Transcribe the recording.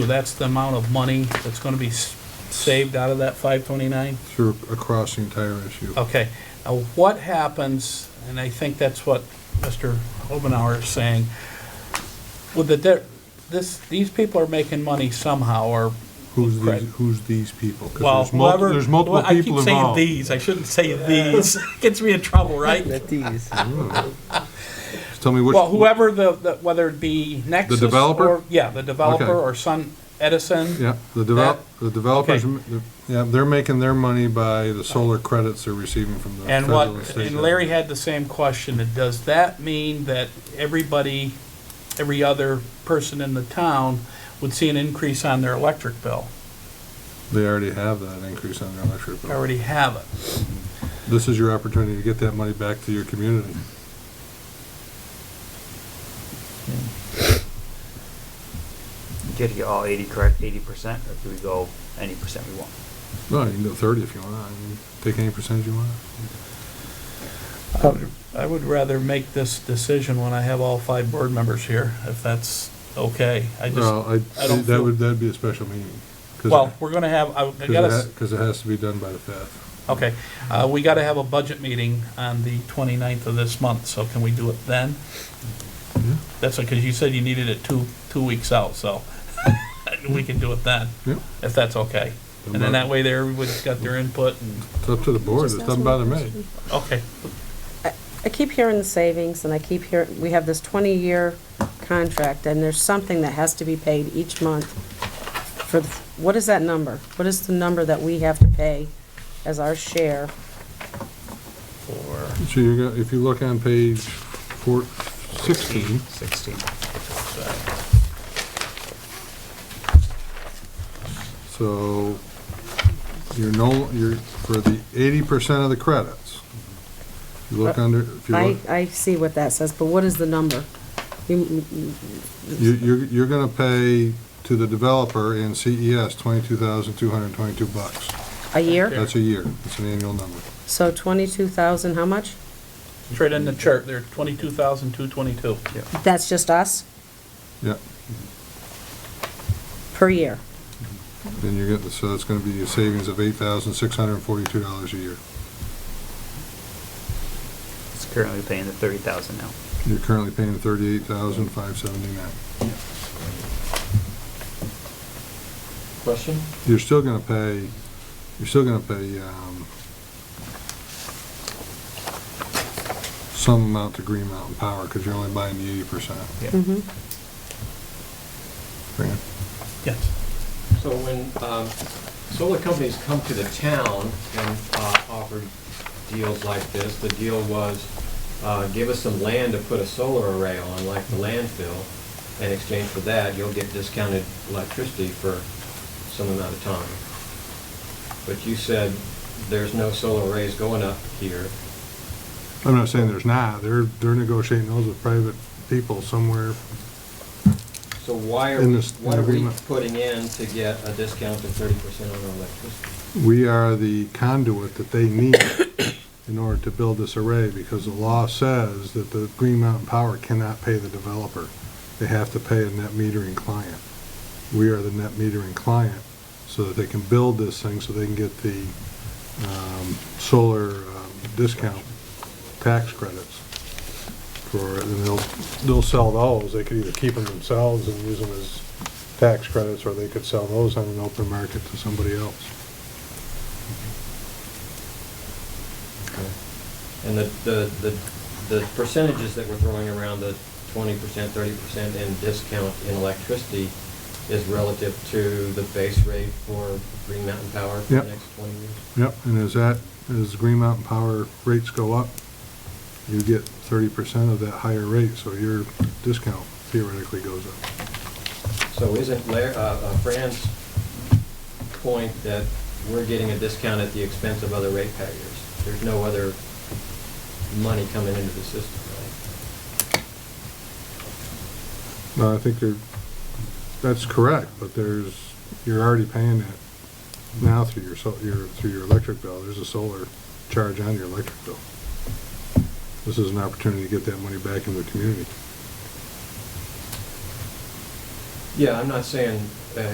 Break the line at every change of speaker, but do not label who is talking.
That's the amount of money that's gonna be s- saved out of that five twenty-nine?
through, across the entire issue.
Okay, now what happens, and I think that's what Mr. Obenauer is saying, with the, de- this, these people are making money somehow, or,
Who's
Craig.
these, who's these people? 'Cause
well,
there's multi-
whoever.
There's multiple
well,
people
I keep saying
involved.
these, I shouldn't say these, gets me in trouble, right?
Just Tell me which.
Well, whoever the, the- whether it be Nexus.
developer?
or- Yeah, the developer,
Okay.
or Sun Edison.
Yeah, the develop, the developers,
Okay.
m- yeah, they're making their money by the solar credits they're receiving from the
And
federal and
what,
state.
and Larry had the same question, and does that mean that everybody, every other person in the town would see an increase on their electric bill?
They already have that increase on their electric
They
bill.
Already have it.
This is your opportunity to get that money back to your community.
Get to get all eighty correct, eighty percent, or do we go any percent we want?
No, you can go thirty if you want, I mean, take any percentage you want.
I would rather make this decision when I have all five board members here, if that's okay. I just,
Well, I,
I don't
that
feel-
would, that'd be a special meeting. 'cause it-
well, we're gonna have, I I
'cause it
gotta,
ha-
s-
Cause it has to be done by the fifth.
okay, uh, we gotta have a budget meeting on the 29th of this month, so can we do it then?
Yeah.
That's because you said you needed it two, two weeks out, so we can do it then,
Yeah.
if that's okay. And then that way there, everybody's got their input and,
It's up to the board, it
Just ask
doesn't
them
bother
a
me.
question.
okay,
I keep hearing the savings, and I keep hearing, we have this 20-year contract, and there's something that has to be paid each month for, the- what is that number? What is the number that we have to pay as our share?
for,
So you're gonna, if you look on page four, Mm-hmm. sixteen,
Sixteen.
so you're no, you're, for the eighty percent of the credits. You look
Uh,
under, if you
I,
look,
I see what that says, but what is the number? You-
you, you're, you're gonna pay to the developer in CES twenty-two thousand two hundred and twenty-two bucks.
A year?
That's a year, it's an annual number.
So 22,000, how much?
trade in the chart, they're twenty-two thousand, two twenty-two.
That's just us
Yeah,
per year?
then you're getting, so it's gonna be a savings of eight thousand six hundred and forty-two dollars a year.
It's currently paying the thirty thousand now.
You're currently paying thirty-eight thousand five seventy-nine.
Question?
you're still gonna pay, you're still gonna pay, um, some amount to Green Mountain Power, cause you're only buying the eighty percent.
Mhm.
Yes,
So when um, solar companies come to the town and uh, offer deals like this, the deal was, uh, give us some land to put a solar array on, like the landfill, in exchange for that, you'll get discounted electricity for some amount of time. But you said there's no solar arrays going up here.
I'm not saying there's not, they're, they're negotiating those with private people somewhere.
So why are,
In
we-
this-
what are we
agreement.
putting in to get a discount of 30% on our electricity?
We are the conduit that they need in order to build this array, because the law says that the Green Mountain Power cannot pay the developer. They have to pay a net metering client. We are the net metering client, so that they can build this thing, so they can get the um, solar um, discount tax credits for, it, and they'll, they'll sell those. They could either keep them themselves and use them as tax credits, or they could sell those on an open market to somebody else.
And the, the, the the percentages that we're throwing around, the twenty percent, thirty percent in discount in electricity is relative to the base rate for Green Mountain Power for the
Yep.
next twenty years?
Yep, and as that, as Green Mountain Power rates go up, you get thirty percent of that higher rate, so your discount theoretically goes up.
So isn't Lar- uh, uh, Fran's point that we're getting a discount at the expense of other ratepayers? There's no other money coming into the system, right?
No, I think you're, that's correct, but there's, you're already paying it now through your, sol- your, through your electric bill. There's a solar charge on your electric bill. This is an opportunity to get that money back into the community.
Yeah, I'm not saying, uh,